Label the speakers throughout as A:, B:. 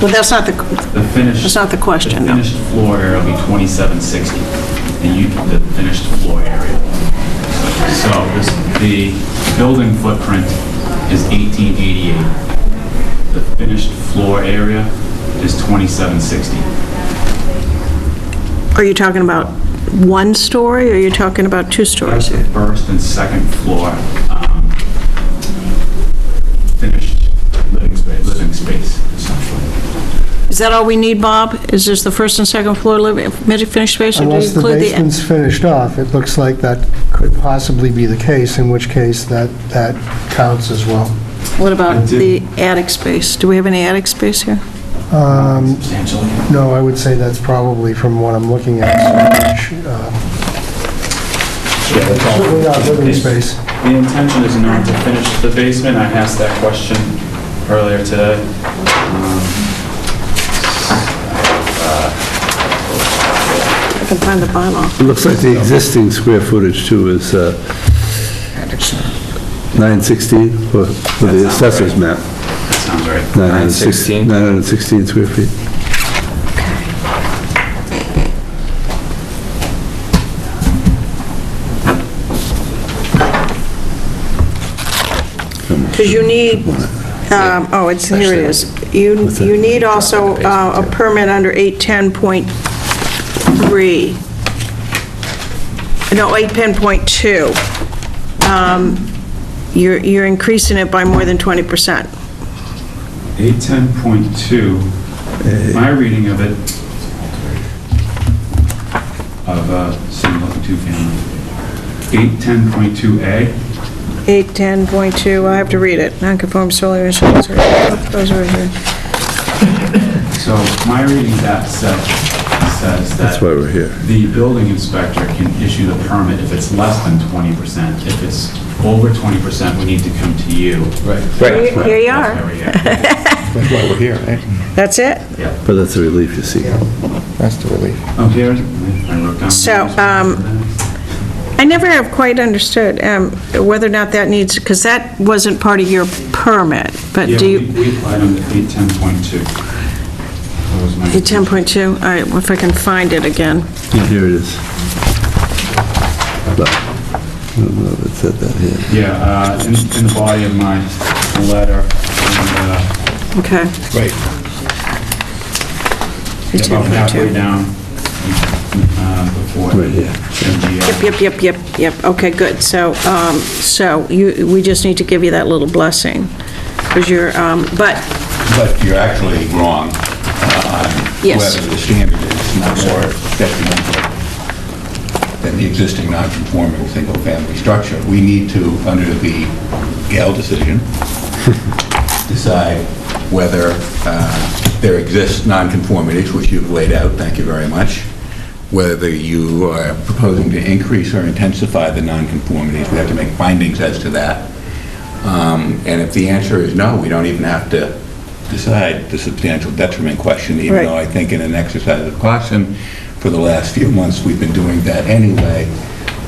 A: But that's not the,
B: um, The finished...
A: That's not the question, no.
B: The finished floor area will be 2760, and you, the finished floor area. So this, the building footprint is 1888. The finished floor area is 2760.
A: are you talking about one story, or are you talking about two
B: That's
A: stories
B: the
A: here?
B: first and second floor um, finished
C: living space.
B: living space, essentially.
A: Is that all we need, Bob? Is this the first and second floor living, finished space, or do you
D: Unless the
A: include the...
D: basement's finished off, it looks like that could possibly be the case, in which case that, that counts as well.
A: What about
B: I
A: the
B: did-
A: attic space? Do we have any attic space here?
D: Um,
B: Substantially.
D: No, I would say that's probably from what I'm looking at. so much, uh,
C: Yeah, that's all.
D: Certainly not living space.
B: The intention is not to finish the basement, I asked that question earlier today.
A: I can find the bylaw.
E: It looks like the existing square footage too is uh, 916 for for the assessor's map.
B: That sounds right.
E: 916 916 square feet.
A: Because you need, um, oh, it's, here it is. You, you need also uh, a permit under 810.3. No, 810.2. Um, You're, you're increasing it by more than 20%.
B: 810.2, my reading of it, of a single, two-family, 810.2A,
A: 810.2, I have to read it. Non-conform solar insurance, those are here.
B: so my reading of that says, says that...
E: That's why we're here.
B: The building inspector can issue the permit if it's less than 20%. If it's over 20%, we need to come to you.
C: Right.
B: That's what-
A: Here you
B: that's
A: are.
B: where we are.
C: That's why we're here, right?
A: That's it?
B: Yeah.
E: But that's the relief you see.
C: That's the relief.
B: Oh, here, I wrote down.
A: So, um, I never have quite understood um, whether or not that needs, because that wasn't part of your permit, but
B: Yeah,
A: do
B: we
A: you,
B: we applied on the 810.2. That was my-
A: 10.2, all right, well, if I can find it again.
E: Here it is. Look. I don't know if it said that here.
B: Yeah, uh, in in the body of my letter, and, uh,
A: Okay.
C: Right.
B: about
A: 10.2.
B: halfway down, uh, before.
E: Right here.
B: MGL.
A: Yep, yep, yep, yep, yep, okay, good. So, um, so you, we just need to give you that little blessing, because you're, um, but,
C: But you're actually wrong. uh,
A: Yes.
C: Whether the standard is not more detrimental than the existing non-conforming single-family structure. We need to, under the Gale decision, decide whether uh, there exists nonconformities, which you've laid out, thank you very much, whether you are proposing to increase or intensify the nonconformities, we have to make findings as to that. Um, And if the answer is no, we don't even have to decide the substantial detriment question, even
A: Right.
C: though I think in an exercise of caution, for the last few months, we've been doing that anyway,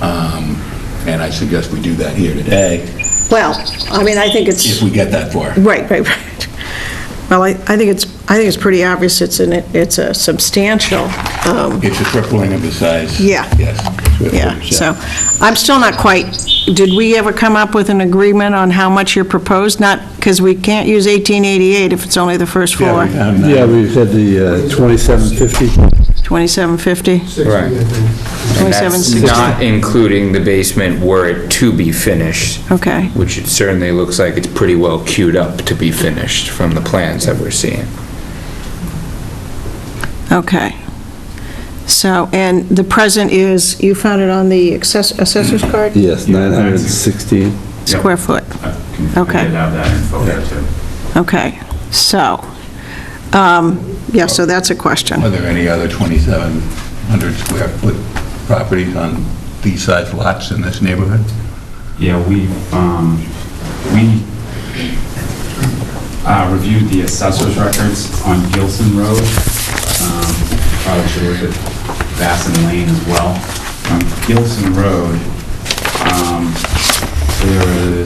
C: Um, and I suggest we do that here today,
A: well, I mean, I think it's...
C: if we get that far.
A: Right, right, right. Well, I, I think it's, I think it's pretty obvious it's an, it's a substantial, um,
C: It's a tripling of the size.
A: Yeah.
C: Yes.
A: yeah, so, I'm still not quite, did we ever come up with an agreement on how much you're proposed? Not, because we can't use 1888 if it's only the first floor,
E: Yeah, we had the uh, 2750.
A: 2750,
F: Right. And that's
A: 2760.
F: not including the basement were it to be finished.
A: Okay.
F: Which it certainly looks like it's pretty well queued up to be finished from the plans that we're seeing.
A: Okay. So, and the present is, you found it on the access- assessor's card?
E: Yes, 916.
A: Square foot.
B: I can-
A: Okay.
B: I did have that info there, too.
A: Okay, so, um, yeah, so that's a question.
C: Are there any other 2,700 square foot properties on these size lots in this neighborhood?
B: Yeah, we, um, we uh, reviewed the assessor's records on Gilson Road. Um, Probably should look at Bassin Lane as well. On Gilson Road, um, there is